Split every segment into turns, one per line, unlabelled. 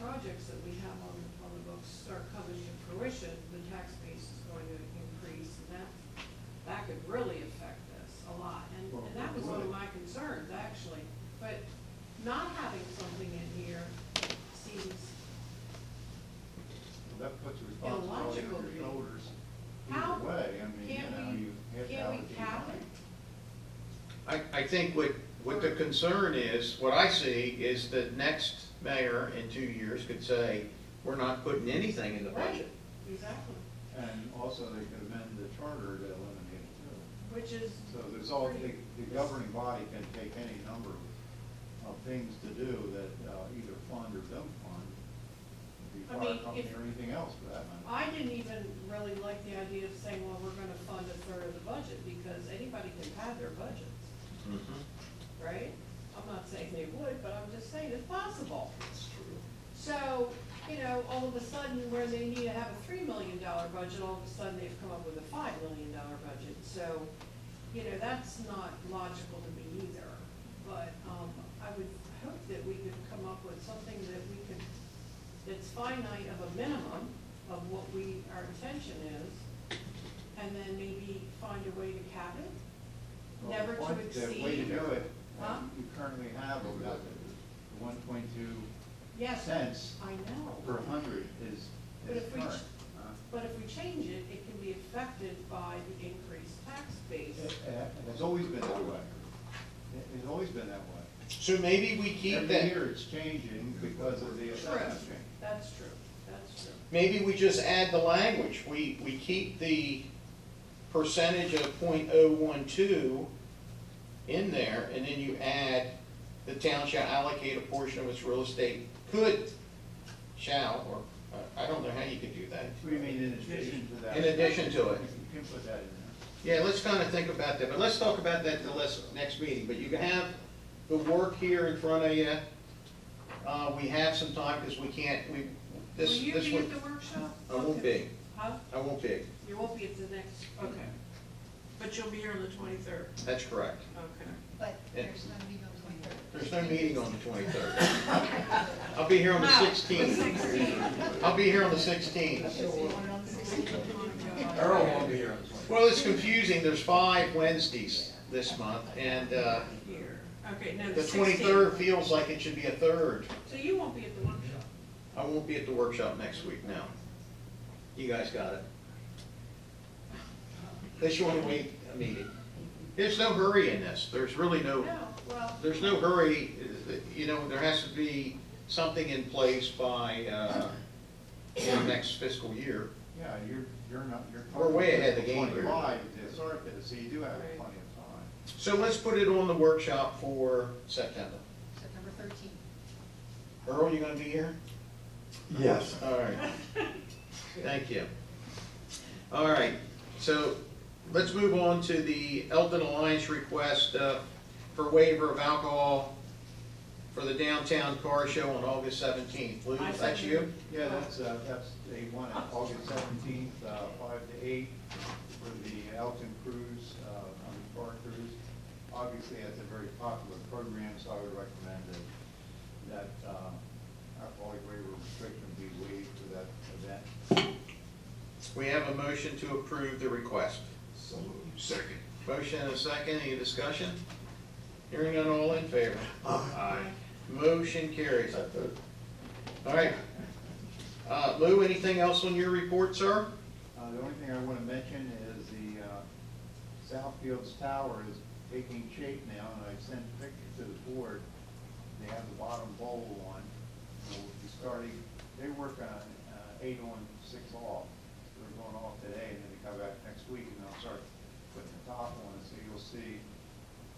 projects that we have on, on the books are coming to fruition, the tax base is going to increase, and that, that could really affect this a lot. And,
Well,
and that was one of
right.
my concerns, actually, but not having something in here seems
That puts the responsibility on your
Illogical.
shoulders.
How
Either way, I mean, you
can
know,
we-
you
can
have to
we
allocate
cap
money.
I, I think what, what the concern is, what I see, is that next mayor in two years could say, we're not putting anything in the
Right,
budget.
exactly,
And also, they could amend the charter to eliminate it too.
which is.
So there's all, the,
pretty-
the governing body can take any number of things to do that uh, either fund or don't fund. The
I
fire
mean,
company
if-
or anything else for that matter.
I didn't even really like the idea of saying, well, we're gonna fund a third of the budget, because anybody can pad their budgets,
Mm-hmm.
right? I'm not saying they would, but I'm just saying it's possible.
That's true.
So, you know, all of a sudden, where they need to have a three million dollar budget, all of a sudden, they've come up with a five million dollar budget, so, you know, that's not logical to me either. But, um, I would hope that we could come up with something that we could, that's finite of a minimum of what we, our intention is, and then maybe find a way to cap it,
Well,
never to
one-
exceed.
The way to do it,
Huh?
um, you currently have about the one point two
Yes, I
cents
know.
per hundred is,
But
is
if we
current.
ch-
huh?
But if we change it, it can be affected by the increased tax base.
It it has always been that way. It- It's always been that way.
So maybe we keep
Every
that,
year it's changing because of the
True,
assessment change.
that's true, that's true.
maybe we just add the language, we, we keep the percentage of point oh one two in there, and then you add, the town shall allocate a portion of its real estate, could, shall, or, uh, I- I don't know how you could do that.
What do you mean in addition to that?
In addition to it.
You can put that in there.
Yeah, let's kind of think about that, but let's talk about that the less, next meeting, but you can have the work here in front of you. Uh, we have some time, because we can't, we,
Will
this,
you
this
be at
one,
the workshop?
I won't be,
Huh?
I won't be,
You won't be at the next, okay. But you'll be here on the twenty-third,
that's correct.
okay.
But
Yeah.
there's no meeting on twenty-third.
There's no meeting on the twenty-third. I'll be here on
Ah,
the sixteenth, I'll be here on the sixteenth.
Earl won't be here on the
Well, it's confusing, there's five Wednesdays this month, and, uh,
Here, okay, no,
the twenty-third feels like it should be a third.
So you won't be at the workshop?
I won't be at the workshop next week, no. You guys got it. Unless you want to wait a meeting. There's no hurry in this, there's really no,
No, well,
there's no hurry, you know, there has to be something in place by, uh, you know, next fiscal year.
Yeah, you're, you're not, you're.
We're way ahead of the game here.
Twenty-five, to start this, so you do have
Right.
plenty of time.
So let's put it on the workshop for September.
September thirteenth.
Earl, you gonna be here?
Yes.
All right. Thank you. All right, so let's move on to the Elton Alliance request uh, for waiver of alcohol for the downtown car show on August seventeenth. Lou,
I
is that you?
second.
Yeah, that's, uh, that's day one, uh, August seventeenth, uh, five to eight, for the Elton Cruise, uh, on the car cruise. Obviously, that's a very popular program, so I would recommend that, that, um, alcoholic waiver restriction be waived for that event.
We have a motion to approve the request.
So moved. Second.
Motion and a second, any discussion? Hearing none, all in favor?
Aye.
Motion carries. All right. Uh, Lou, anything else on your report, sir?
Uh, the only thing I wanna mention is the, uh, Southfield's Tower is taking shape now, and I've sent pictures to the board. They have the bottom bowl on, so we'll be starting, they work on, uh, eight on, six off. They're going off today, and then they come back next week, and they'll start putting the top on, so you'll see,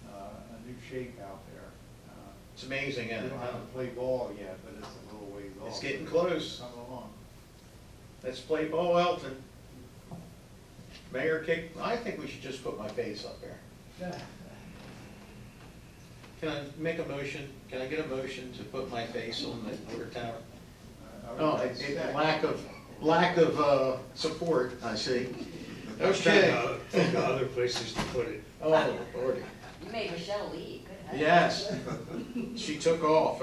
uh, a new shape out there. Uh,
It's amazing,
We
isn't
don't have to
it?
play ball yet, but it's a little ways off.
It's getting close.
Coming along.
Let's play Bo Elton. Mayor kick, I think we should just put my face up there. Can I make a motion? Can I get a motion to put my face on the water tower?
Uh, I would
Oh, it- it-
expect-
lack of, lack of, uh, support, I see. Okay.
Think of other places to put it.
Oh, Lordy.
You made Michelle leave. Good husband.
Yes. She took off.